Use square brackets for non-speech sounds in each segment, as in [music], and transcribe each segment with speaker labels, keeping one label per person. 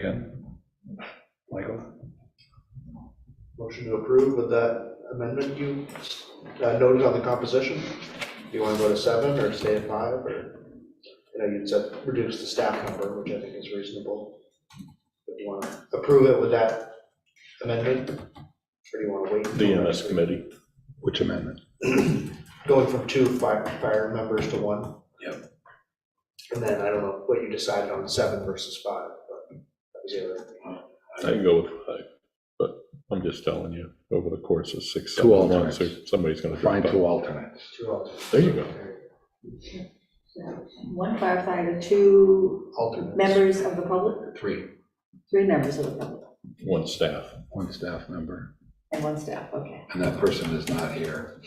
Speaker 1: Yeah. Michael?
Speaker 2: Motion to approve with that amendment you uh, noted on the composition. Do you want to go to seven or stay at five or? You know, you'd said reduce the staff number, which I think is reasonable. But do you want to approve it with that amendment? Or do you want to wait?
Speaker 3: The
Speaker 2: until
Speaker 1: uh,
Speaker 2: next
Speaker 3: EMS
Speaker 2: week?
Speaker 3: committee. Which amendment?
Speaker 2: Going from two fire, fire members to one?
Speaker 1: Yep.
Speaker 2: And then I don't know what you decided on seven versus five, but that was the other.
Speaker 3: I can go with five, but I'm just telling you, over the course of six,
Speaker 1: Two
Speaker 3: seven months,
Speaker 1: alternates.
Speaker 3: there- somebody's gonna drop
Speaker 1: Find two
Speaker 3: out.
Speaker 1: alternates.
Speaker 2: Two alternates.
Speaker 3: There you go.
Speaker 4: One firefighter, two
Speaker 2: Alternates.
Speaker 4: members of the public,
Speaker 1: Three.
Speaker 4: three members of the public,
Speaker 3: One staff.
Speaker 1: One staff member,
Speaker 4: and one staff, okay.
Speaker 1: and that person is not here.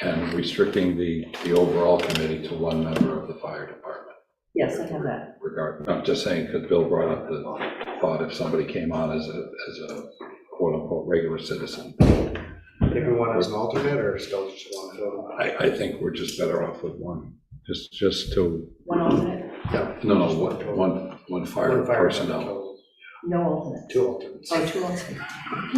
Speaker 1: And restricting the, the overall committee to one member of the fire department.
Speaker 4: Yes, I have that.
Speaker 1: Regard, I'm just saying, because Bill brought up the thought if somebody came on as a, as a quote-unquote regular citizen.
Speaker 2: Everyone has an alternate or still just one? So,
Speaker 1: I, I think we're just better off with one, just, just to,
Speaker 4: One alternate,
Speaker 2: No,
Speaker 1: no, no, one, one, one fire
Speaker 2: One fire
Speaker 1: personnel.
Speaker 2: total,
Speaker 4: no alternate,
Speaker 2: Two alternates.
Speaker 4: or two [laughs] alternates.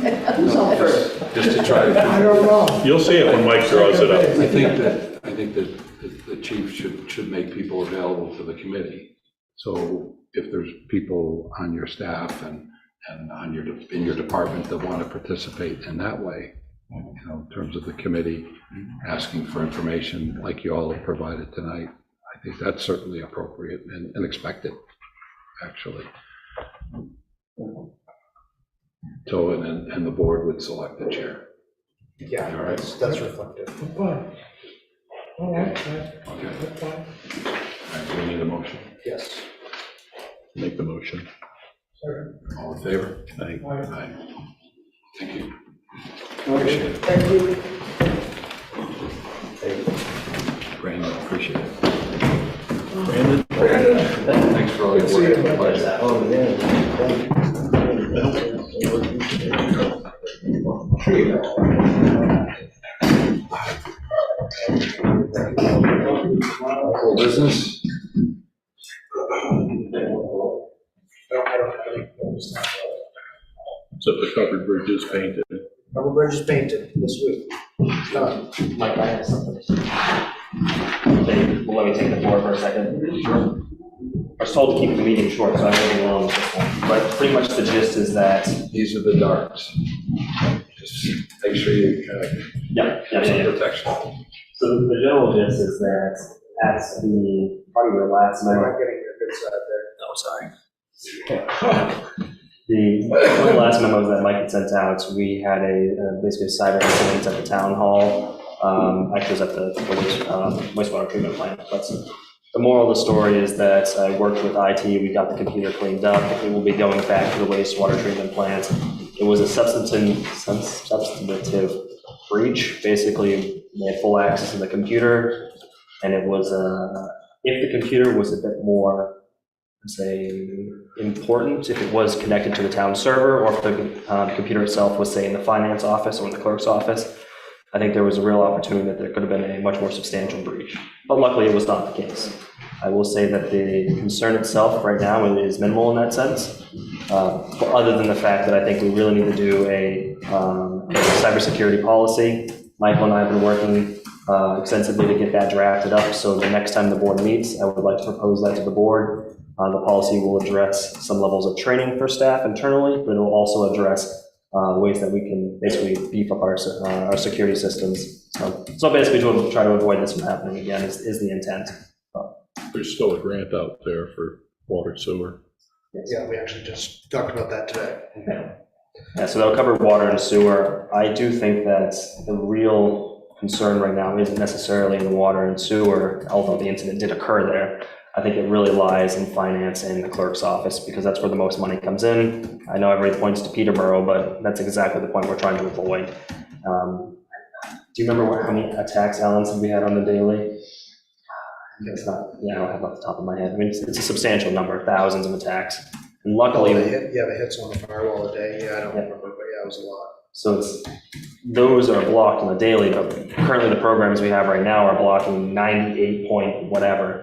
Speaker 1: No, Just just to try to.
Speaker 5: I don't
Speaker 1: Oh.
Speaker 5: know.
Speaker 3: You'll see it when Mike draws it up.
Speaker 1: I think that, I think that the- the chief should, should make people available to the committee. So if there's people on your staff and, and on your, de- in your department that want to participate in that way, you know, in terms of the committee, asking for information like you all have provided tonight, I think that's certainly appropriate and, and expected, actually. So, and, then- and the board would select the chair.
Speaker 2: Yeah,
Speaker 1: All right.
Speaker 2: that's, that's reflective.
Speaker 5: Fine. All right, that-
Speaker 1: Okay,
Speaker 5: that's fine.
Speaker 1: All right, we need a motion.
Speaker 2: Yes.
Speaker 3: Make the motion.
Speaker 1: All in favor?
Speaker 3: Aye.
Speaker 5: All right.
Speaker 1: Aye. Thank you.
Speaker 2: Okay.
Speaker 4: Thank you.
Speaker 1: Brandon, appreciate it.
Speaker 3: Brandon?
Speaker 1: Thanks for all your work. It's a pleasure. Whole business?
Speaker 3: So the covered bridge is painted.
Speaker 2: Rubber bridge is painted this week. It's done.
Speaker 6: Mike, I have something. Let me take the floor for a second. Sure. I was told to keep the meeting short, so I'm moving along with this one. But pretty much the gist is that,
Speaker 1: These are the darts. Just make sure you uh,
Speaker 6: yeah, yeah,
Speaker 1: have
Speaker 6: yeah,
Speaker 1: some
Speaker 6: yeah.
Speaker 1: protection.
Speaker 6: So the general gist is that at the party we were last
Speaker 2: I'm
Speaker 6: night,
Speaker 2: not getting your good side there.
Speaker 6: Oh, sorry. The, one of the last memos that Mike had sent out, we had a, uh, basically a cyber incident at the town hall. Um, actually, it was at the the waste- um, wastewater treatment plant, but the moral of the story is that I worked with IT, we got the computer cleaned up, it will be going back to the wastewater treatment plant. It was a substantive, substantive breach, basically, they had full access to the computer, and it was, uh, if the computer was a bit more say, important if it was connected to the town server or if the uh, computer itself was, say, in the finance office or in the clerk's office. I think there was a real opportunity that there could have been a much more substantial breach. But luckily, it was not the case. I will say that the concern itself right now is minimal in that sense. uh, but Other than the fact that I think we really need to do a um, cybersecurity policy. Michael and I have been working uh, extensively to get that drafted up. So the next time the board meets, I would like to propose that to the board. Uh, The policy will address some levels of training for staff internally, but it will also address uh, ways that we can basically beef up our, se- uh, our security systems. So so basically, to try to avoid this from happening again is, is the intent.
Speaker 3: There's still a grant out there for water sewer.
Speaker 2: Yeah, we actually just talked about that today.
Speaker 6: Yeah, so that'll cover water and sewer. I do think that the real concern right now isn't necessarily in the water and sewer, although the incident did occur there. I think it really lies in finance and the clerk's office, because that's where the most money comes in. I know everybody points to Peterborough, but that's exactly the point we're trying to avoid. Um, Do you remember what- how many attacks, Alan, said we had on the daily? It's not, yeah, I don't have it off the top of my head. I mean, it's it's a substantial number, thousands of attacks. And luckily.
Speaker 2: Oh, they hit- Yeah, they hit someone on the firewall today. Yeah, I don't remember, but yeah, it was a lot.
Speaker 6: So it's, those are blocked on the daily, but currently the programs we have right now are blocking 98 point whatever.